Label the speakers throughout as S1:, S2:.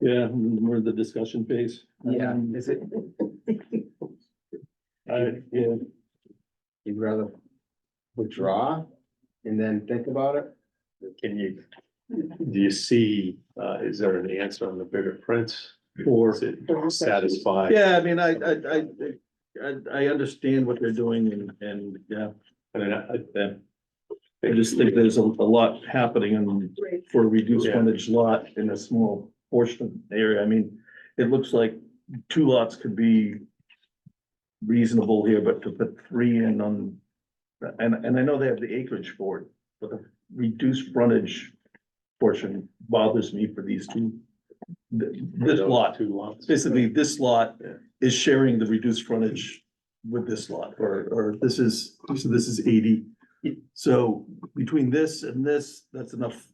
S1: Yeah, we're in the discussion phase. Um,
S2: Yeah, is it,
S1: I, yeah,
S2: you'd rather withdraw and then think about it?
S3: Can you, do you see, uh, is there an answer on the bigger prints? Or
S1: or,
S3: is it satisfied?
S1: yeah, I mean, I, I, I, I, I understand what they're doing and, and, yeah.
S3: I mean, I- I-
S1: I just think there's a, a lot happening and
S4: Right.
S1: for a reduced
S3: Yeah.
S1: frontage lot in a small portion area. I mean, it looks like two lots could be reasonable here, but to put three in on, and, and I know they have the acreage for it, but the reduced frontage portion bothers me for these two. Th- This lot,
S3: Two lots.
S1: basically, this lot
S3: Yeah.
S1: is sharing the reduced frontage with this lot, or, or this is, so this is eighty. So between this and this, that's enough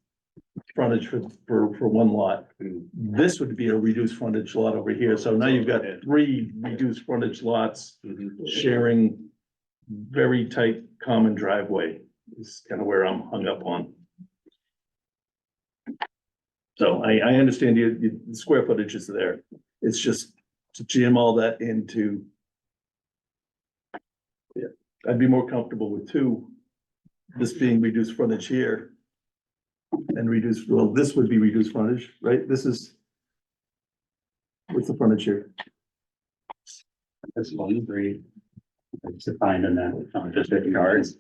S1: frontage for, for, for one lot.
S3: And
S1: This would be a reduced frontage lot over here, so now you've got
S3: Yeah.
S1: three reduced frontage lots
S3: mhm,
S1: sharing very tight common driveway is kind of where I'm hung up on. So I, I understand you, you- the square footage is there. It's just to jam all that into. Yeah, I'd be more comfortable with two, this being reduced frontage here. And reduced, well, this would be reduced frontage, right? This is. What's the frontage here?
S5: That's one, three. It's defined in that, um, just fifty yards.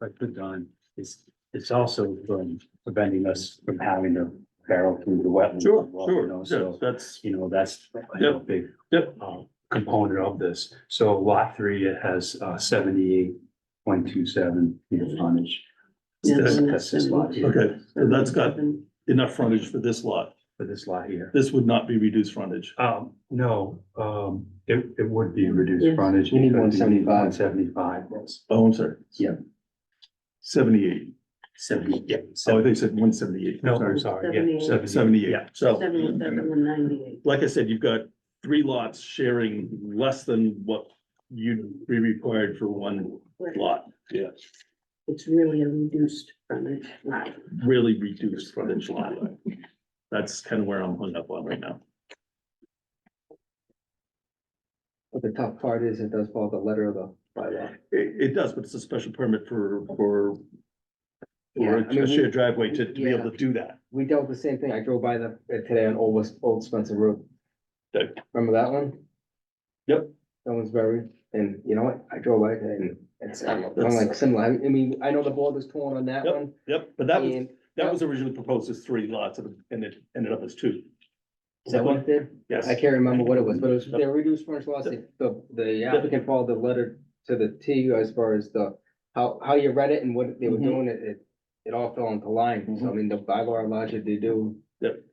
S5: But put on, it's, it's also from preventing us from having to barrel through the wetlands. as well, you know,
S1: Yeah,
S5: So,
S1: that's,
S5: you know, that's you know, a big.
S1: Yep.
S5: um, Component of this. So lot three, it has uh, seventy-eight point two seven feet of frontage. That's that's this lot here,
S1: okay, so that's got enough frontage for this lot.
S5: for this lot here.
S1: This would not be reduced frontage.
S5: Um, no, um, it, it would be reduced
S4: Yeah.
S5: frontage.
S2: You need 175.
S5: One seventy-five, yes.
S1: Oh, I'm sorry.
S5: Yeah.
S1: Seventy-eight.
S5: Seventy, yeah.
S1: Oh, they said one seventy-eight.
S5: No, I'm sorry, yeah,
S4: Seventy-eight.
S5: seventy.
S1: Seventy-eight.
S5: Yeah.
S1: So,
S4: Seventy-seven and ninety-eight.
S1: like I said, you've got three lots sharing less than what you'd be required for one
S4: Right.
S1: lot. Yeah.
S4: It's really a reduced frontage lot.
S1: Really reduced frontage lot. That's kind of where I'm hung up on right now.
S2: But the tough part is it does follow the letter of the bylaw.
S1: It, it does, but it's a special permit for, for
S2: Yeah,
S1: for
S2: I mean,
S1: a
S2: we-
S1: shared driveway to, to be able to do that.
S2: We dealt with the same thing. I drove by the, uh, today on Old West, Old Spencer Road.
S1: Okay.
S2: Remember that one?
S1: Yep.
S2: That one's buried. And you know what? I drove by it and it's, uh, I'm
S1: That's-
S2: like similar. I mean, I know the board was torn on that
S1: Yep,
S2: one.
S1: Yep, but that was,
S2: and-
S1: That was originally proposed as three lots and and it ended up as two.
S2: Is that what it did?
S1: Yes.
S2: I can't remember what it was, but it was, they reduced frontage lots, the, the- the applicant followed the letter to the T as far as the, how, how you read it and what they were
S1: Mhm.
S2: doing, it, it, it all fell into line, so I mean, the bylaw allows you to do,
S1: That,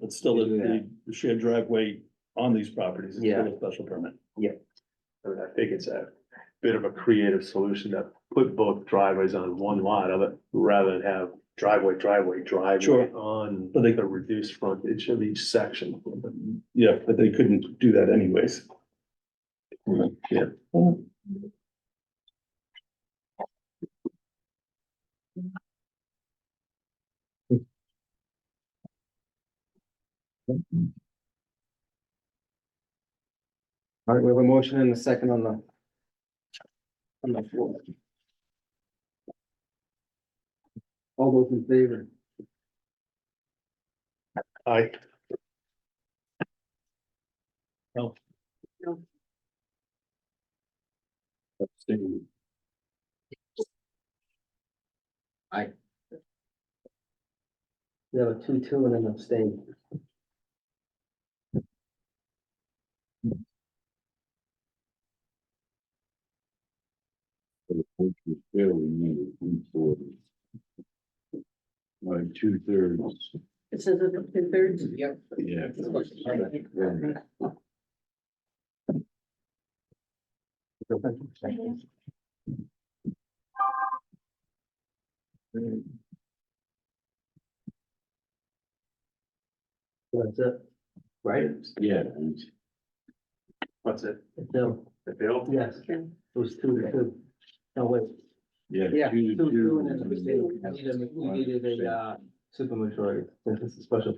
S1: that's still
S2: Do
S1: the,
S2: that.
S1: the shared driveway on these properties. is still
S2: Yeah.
S1: a Special permit.
S3: I mean, I think it's a bit of a creative solution to put both driveways on one lot of it, rather than have driveway, driveway, driveway
S1: Sure.
S3: on
S1: But they-
S3: the reduced frontage of each section.
S1: Yeah, but they couldn't do that anyways. Yeah.
S2: all right, we have a motion and a second on the. On the floor. All those in favor,
S3: I,
S2: we have a two, two and an abstain.
S6: So the vote was fairly near three quarters. Like two thirds,
S4: It says it's up to thirds.
S2: Yep.
S6: yeah.
S2: That's it, right?
S6: Yeah, and
S3: what's it,
S2: No,
S3: the bill?
S2: yes, it was two, to two. No, wait.
S6: yeah.
S2: Yeah,
S6: two to
S2: two, two, and
S6: two.
S2: uh, then we needed, we needed a, uh, supermajority, since it's a special